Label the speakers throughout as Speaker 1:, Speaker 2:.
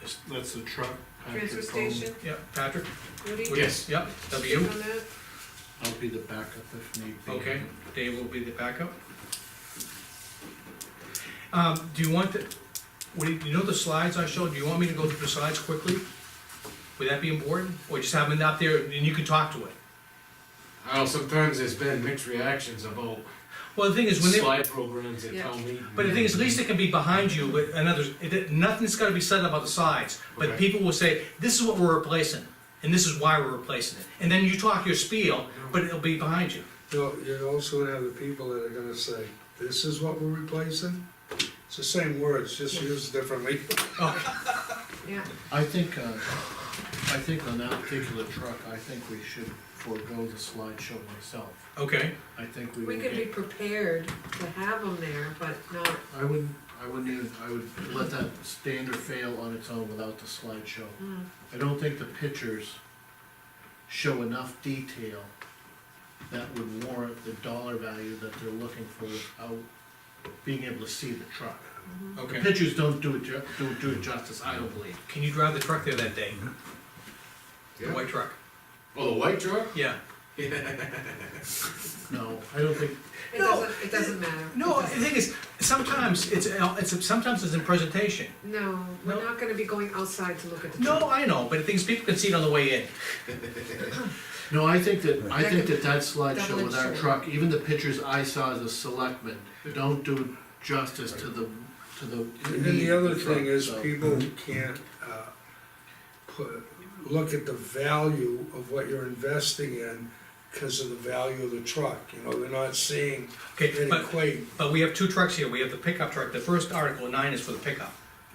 Speaker 1: That's- That's the truck. Patrick
Speaker 2: Transfer
Speaker 1: Bowman.
Speaker 2: station,
Speaker 3: Yep, Patrick?
Speaker 2: Woody?
Speaker 3: Woody?
Speaker 1: Yes.
Speaker 3: Yep, that'll be you.
Speaker 2: On that?
Speaker 1: I'll be the backup if need be.
Speaker 3: Okay, Dave will be the backup. Um, do you want the, what, do you you know the slides I showed, do you want me to go through the slides quickly? Would that be important, or just have them up there and you can talk to it?
Speaker 4: Well, sometimes there's been mixed reactions about
Speaker 3: Well, the thing is, when they,
Speaker 4: slide programs at
Speaker 2: Yeah.
Speaker 4: town meeting.
Speaker 3: but the thing is, at least it can be behind you, but another, it, nothing's gotta be said about the slides. But
Speaker 4: Okay.
Speaker 3: people will say, this is what we're replacing, and this is why we're replacing it, and then you talk your spiel, but it'll be behind you.
Speaker 5: You'll, you'll also have the people that are gonna say, this is what we're replacing? It's the same words, just used differently.
Speaker 2: Yeah,
Speaker 1: I think, uh, I think on that particular truck, I think we should forego the slideshow myself.
Speaker 3: Okay,
Speaker 1: I think we
Speaker 2: we
Speaker 1: would
Speaker 2: can be
Speaker 1: get,
Speaker 2: prepared to have them there, but not,
Speaker 1: I wouldn't, I wouldn't even, I would let that stand or fail on its own without the slideshow.
Speaker 2: mm,
Speaker 1: I don't think the pictures show enough detail that would warrant the dollar value that they're looking for without being able to see the truck. The
Speaker 3: okay.
Speaker 1: pictures don't do it, ju- don't do it justice, I don't believe.
Speaker 3: Can you drive the truck there that day? The
Speaker 4: Yeah.
Speaker 3: white truck?
Speaker 4: Oh, the white truck?
Speaker 3: Yeah.
Speaker 1: No, I don't think,
Speaker 2: it
Speaker 3: No,
Speaker 2: doesn't, it doesn't matter.
Speaker 3: No, the thing is, sometimes it's, it's, sometimes it's in presentation.
Speaker 2: No, we're
Speaker 3: No.
Speaker 2: not gonna be going outside to look at the.
Speaker 3: No, I know, but the thing is, people can see it on the way in.
Speaker 1: no, I think that, I
Speaker 2: That
Speaker 1: think
Speaker 2: could
Speaker 1: that that slideshow with our
Speaker 2: double-edged
Speaker 1: truck, even the pictures I saw as a selectman, don't do justice to the, to the.
Speaker 5: And
Speaker 1: need
Speaker 5: the
Speaker 1: of
Speaker 5: other
Speaker 1: truck,
Speaker 5: thing is,
Speaker 1: so-
Speaker 5: people can't, uh, put, look at the value of what you're investing in because of the value of the truck, you know, they're not seeing
Speaker 3: Okay,
Speaker 5: it
Speaker 3: but,
Speaker 5: equate.
Speaker 3: but we have two trucks here, we have the pickup truck, the first article, nine is for the pickup.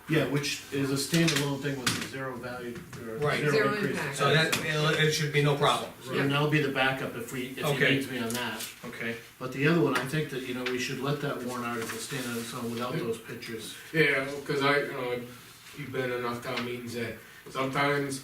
Speaker 1: Yeah, which is a standalone thing with zero value, or
Speaker 3: Right.
Speaker 1: zero
Speaker 2: Zero
Speaker 1: increase.
Speaker 2: impact.
Speaker 3: So that, it should be no problem.
Speaker 1: So then that'll be the backup if we, if he
Speaker 3: Okay.
Speaker 1: needs me on that.
Speaker 3: Okay.
Speaker 1: But the other one, I think that, you know, we should let that warrant article stand on its own without those pictures.
Speaker 4: Yeah, because I, you know, you've been in enough town meetings that sometimes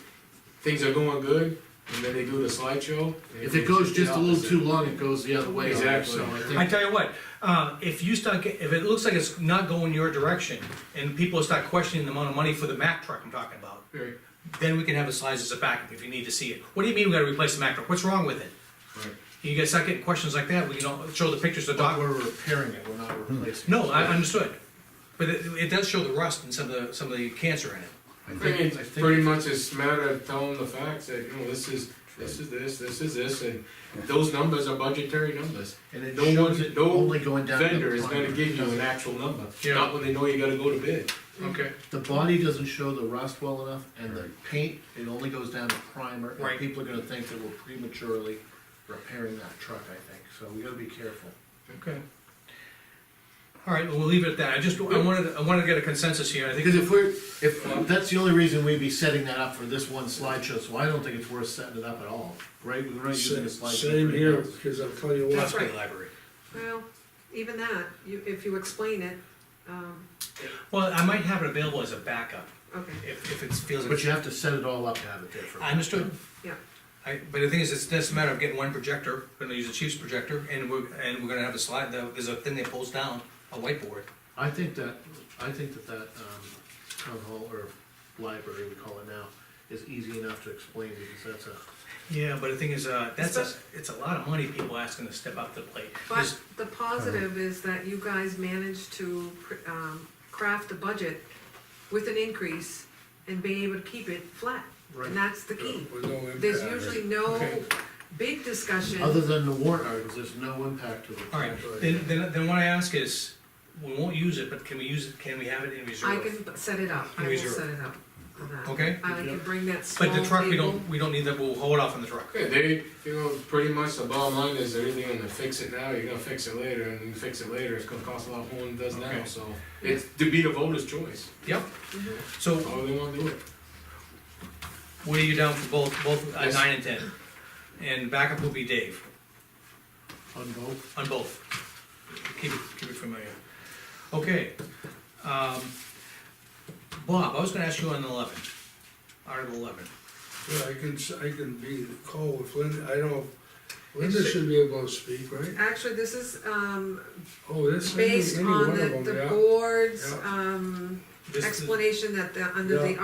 Speaker 4: things are going good, and then they do the slideshow. and
Speaker 1: If it goes
Speaker 4: the
Speaker 1: just a little
Speaker 4: opposite.
Speaker 1: too long, it goes the other way. so
Speaker 4: Exactly.
Speaker 1: I think-
Speaker 3: I tell you what, uh, if you start, get- if it looks like it's not going your direction, and people start questioning the amount of money for the Mack truck I'm talking about,
Speaker 4: Right,
Speaker 3: then we can have the slides as a backup if you need to see it. What do you mean we gotta replace the Mack truck? What's wrong with it?
Speaker 4: right.
Speaker 3: You guys start getting questions like that, we can all show the pictures of the
Speaker 1: But
Speaker 3: dog.
Speaker 1: we're repairing it, we're not
Speaker 5: Hmm.
Speaker 1: replacing it.
Speaker 3: No, I understood, but it, it does show the rust and some of the, some of the cancer in it.
Speaker 1: I
Speaker 4: I mean,
Speaker 1: think, I
Speaker 4: it's
Speaker 1: think,
Speaker 4: pretty much it's a matter of telling the facts that, you know, this is, this is this, this is this, and those numbers are budgetary numbers.
Speaker 1: and it
Speaker 4: no
Speaker 1: shows
Speaker 4: one-
Speaker 1: it
Speaker 4: no
Speaker 1: only going down. to
Speaker 4: Vendor
Speaker 1: the
Speaker 4: is gonna
Speaker 1: plumber.
Speaker 4: give you an actual number,
Speaker 3: Yeah.
Speaker 4: not when they know you gotta go to bid.
Speaker 1: Mm-hmm.
Speaker 3: Okay.
Speaker 1: The body doesn't show the rust well enough, and the paint, it only goes down to primer. and
Speaker 3: Right.
Speaker 1: People are gonna think that we're prematurely repairing that truck, I think, so we gotta be careful.
Speaker 3: Okay. All right, well, we'll leave it at that. I just, I wanted, I wanted to get a consensus here. I think,
Speaker 1: Because if we're, if, that's the only reason we'd be setting that up for this one slideshow, so I don't think it's worth setting it up at all, right? We're not using a slideshow. for
Speaker 5: Same
Speaker 1: anything
Speaker 5: here,
Speaker 1: else.
Speaker 5: because I'll tell you what,
Speaker 2: That's right.
Speaker 3: library.
Speaker 2: Well, even that, you, if you explain it, um,
Speaker 3: Well, I might have it available as a backup
Speaker 2: okay,
Speaker 3: if, if it feels.
Speaker 1: But you have to set it all up to have it there for.
Speaker 3: I understood.
Speaker 2: yeah.
Speaker 3: I, but the thing is, it's just a matter of getting one projector, we're gonna use the chief's projector, and we're, and we're gonna have a slide, that- there's a thing that pulls down, a whiteboard.
Speaker 1: I think that, I think that that, um, town hall or library, we call it now, is easy enough to explain because that's a,
Speaker 3: Yeah, but the thing is, uh, that's, a- it's a lot of money people asking to step up to the plate.
Speaker 2: But
Speaker 3: There's-
Speaker 2: the positive is that you guys managed to cr- um, craft a budget with an increase and being able to keep it flat.
Speaker 1: Right.
Speaker 2: And that's the key.
Speaker 5: with no impact.
Speaker 2: There's usually no
Speaker 3: Okay.
Speaker 2: big discussion.
Speaker 1: other than the warrant articles, there's no impact to it.
Speaker 3: All right, then, then, then what I ask is, we won't use it, but can we use it, can we have it in
Speaker 2: I
Speaker 3: reserve?
Speaker 2: can set it up, I will
Speaker 3: Reserve.
Speaker 2: set it up for that.
Speaker 3: Okay.
Speaker 2: I can bring that small
Speaker 3: But the truck, we
Speaker 2: table.
Speaker 3: don't, we don't need that, we'll hold off on the truck.
Speaker 4: Yeah, they, you know, pretty much the bottom line is they're either gonna fix it now, you're gonna fix it later, and you fix it later, it's gonna cost a lot more than it does now,
Speaker 3: Okay.
Speaker 4: so. It's to be the voter's choice,
Speaker 3: Yep,
Speaker 2: Mm-hmm.
Speaker 3: so
Speaker 4: how they wanna do it.
Speaker 3: what are you down for both, both, uh,
Speaker 4: Yes.
Speaker 3: nine and ten? And backup will be Dave,
Speaker 1: On both,
Speaker 3: on both. Keep it, keep it familiar. Okay, um, Bob, I was gonna ask you on eleven, Article eleven.
Speaker 5: Yeah, I can, s- I can be cold with Linda, I don't, Linda should be able to speak, right?
Speaker 2: Actually, this is, um,
Speaker 5: Oh, this, any any
Speaker 2: based
Speaker 5: one
Speaker 2: on
Speaker 5: of
Speaker 2: the,
Speaker 5: them,
Speaker 2: the
Speaker 5: yeah.
Speaker 2: board's,
Speaker 5: Yeah.
Speaker 2: um,
Speaker 3: This is-
Speaker 2: explanation that the, under the
Speaker 5: Yeah.